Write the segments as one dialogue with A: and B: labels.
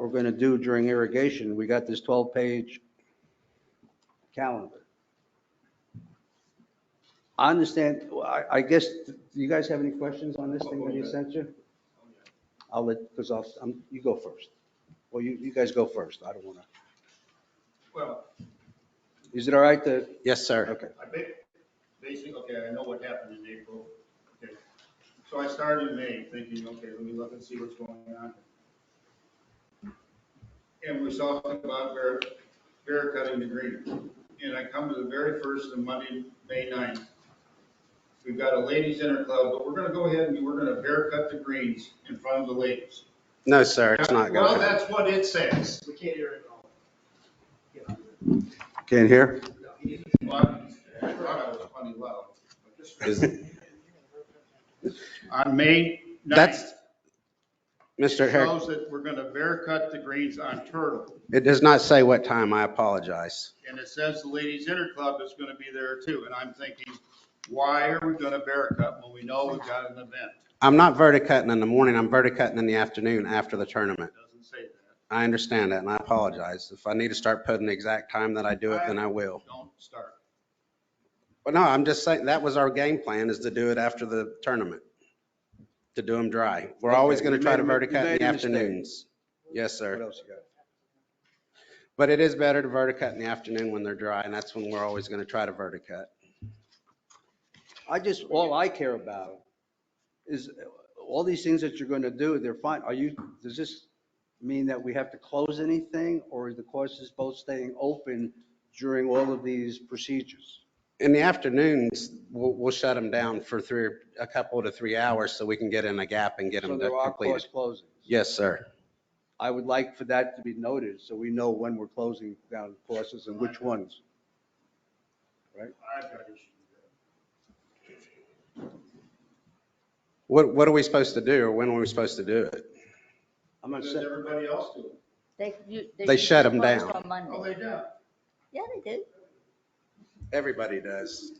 A: we're going to do during irrigation. We got this 12-page calendar. I understand, I, I guess, do you guys have any questions on this thing that you sent you? I'll let, because I'll, I'm, you go first. Well, you, you guys go first. I don't want to.
B: Well,
A: Is it all right to,
C: Yes, sir.
A: okay.
B: I ba- basically, okay, I know what happened in April. Okay, So I started in May thinking, okay, let me look and see what's going on. And we talked about bear, bear cutting the green. And I come to the very first of Monday, May 9th. We've got a ladies interclub, but we're gonna go ahead and we're gonna bear cut the greens in front of the ladies.
C: No, sir, it's not
B: Well,
C: going to.
B: that's what it says.
D: We can't hear it all. Yeah,
A: Can't hear?
D: no, he didn't.
B: Well, I thought I was funny loud. but just-
C: Is-
B: On May 9th.
C: That's, Mr.
B: It
C: Herrick,
B: shows that we're gonna bear cut the greens on Turtle,
C: it does not say what time. I apologize.
B: and it says the ladies' inter club is gonna be there too, and I'm thinking, why are we gonna bear cut when we know we've got an event?
C: I'm not verticutting in the morning. I'm verticutting in the afternoon after the tournament.
B: It Doesn't say that,
C: I understand that and I apologize. If I need to start putting the exact time that I do it, then I will.
B: don't start.
C: But no, I'm just saying, that was our game plan is to do it after the tournament, to do them dry. We're always
A: Okay,
C: going to
A: you
C: try to
A: made a- you
C: verticut in
A: made
C: the
A: a mistake.
C: afternoons.
A: What
C: Yes, sir.
A: else you got?
C: But it is better to verticut in the afternoon when they're dry and that's when we're always going to try to verticut.
A: I just, all I care about is uh, all these things that you're going to do, they're fine. Are you, does this mean that we have to close anything or is the courses both staying open during all of these procedures?
C: In the afternoons, we'll, we'll shut them down for three, a couple to three hours so we can get in a gap and get
A: So
C: them
A: there are
C: completed.
A: course closings.
C: Yes, sir.
A: I would like for that to be noted so we know when we're closing down courses and which ones.
B: I've got issues with that.
C: What, what are we supposed to do or when are we supposed to do it?
A: I'm not
B: Does
A: saying,
B: everybody else do it?
E: They, you.
C: They
E: should
C: shut
E: be
C: 'em
E: closed
C: down.
E: On Monday.
B: Oh, they do.
E: Yeah, they do.
C: Everybody does.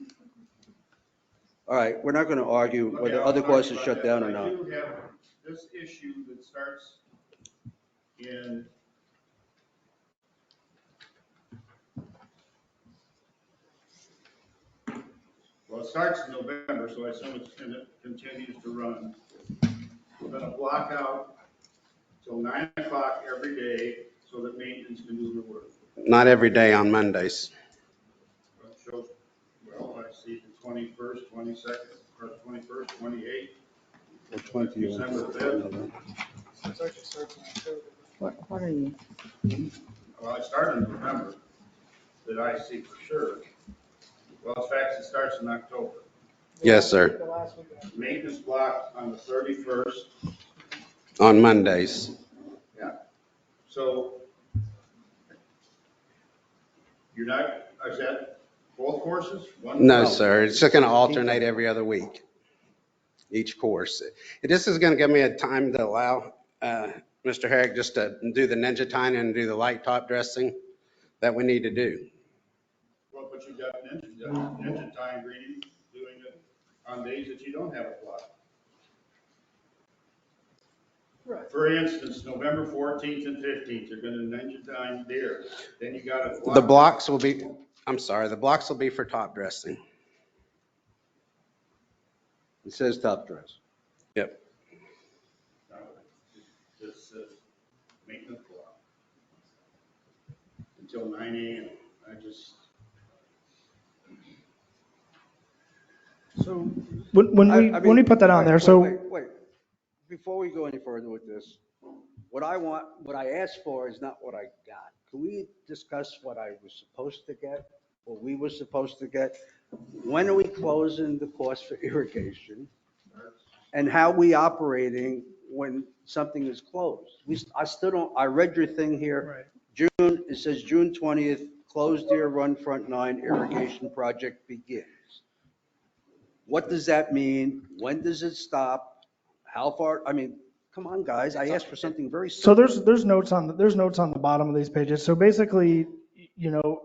A: all right, we're not going to argue
B: Okay,
A: whether
B: I'll
A: other
B: talk
A: courses
B: about
A: shut
B: that.
A: down or
B: I
A: not.
B: do have this issue that starts in well, it starts in November, so I assume it's, and it continues to run. We're gonna block out till nine o'clock every day so that maintenance can do their work.
C: Not every day on Mondays.
B: Well, it shows, well, I see the twenty-first, twenty-second, or twenty-first, twenty-eighth,
A: Which one do you want?
B: December fifth.
D: It's actually starts in October.
E: What, what are you?
B: Well, it started in November, that I see for sure. Well, in fact, it starts in October.
C: Yes, sir.
D: The last week of-
B: Maintenance block on the thirty-first,
C: On Mondays.
B: so you're not, is that both courses? One-
C: No, sir. It's just going to alternate every other week, each course. This is going to give me a time to allow uh, Mr. Herrick just to do the ninja tine and do the light top dressing that we need to do.
B: Well, but you got ninja, you got ninja time reading, doing it on days that you don't have a block.
D: Right.
B: For instance, November fourteenth and fifteenth, you're gonna ninja time there, then you got a block.
C: The blocks will be, I'm sorry, the blocks will be for top dressing.
A: It says top dress.
C: Yep.
B: This is maintenance block. Until nine AM, I just,
D: So when, when
A: I-
D: we,
A: I
D: when we
A: mean,
D: put that on
A: wait,
D: there,
A: wait,
D: so
A: Wait, wait. before we go any further with this, what I want, what I asked for is not what I got. Can we discuss what I was supposed to get, what we were supposed to get? When are we closing the cost for irrigation? And how we operating when something is closed? We, I still don't, I read your thing here. June, it says June 20th, closed Deer Run Front Nine irrigation project begins. What does that mean? When does it stop? How far? I mean, come on, guys, I asked for something very simple.
D: So there's, there's notes on, the there's notes on the bottom of these pages. So basically, you know,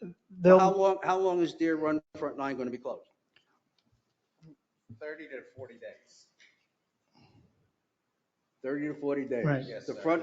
A: How
D: they'll,
A: long, how long is Deer Run Front Nine going to be closed?
F: 30 to 40 days.
A: 30 to 40 days.
D: Right.
F: Yes,
A: The
F: sir.
A: front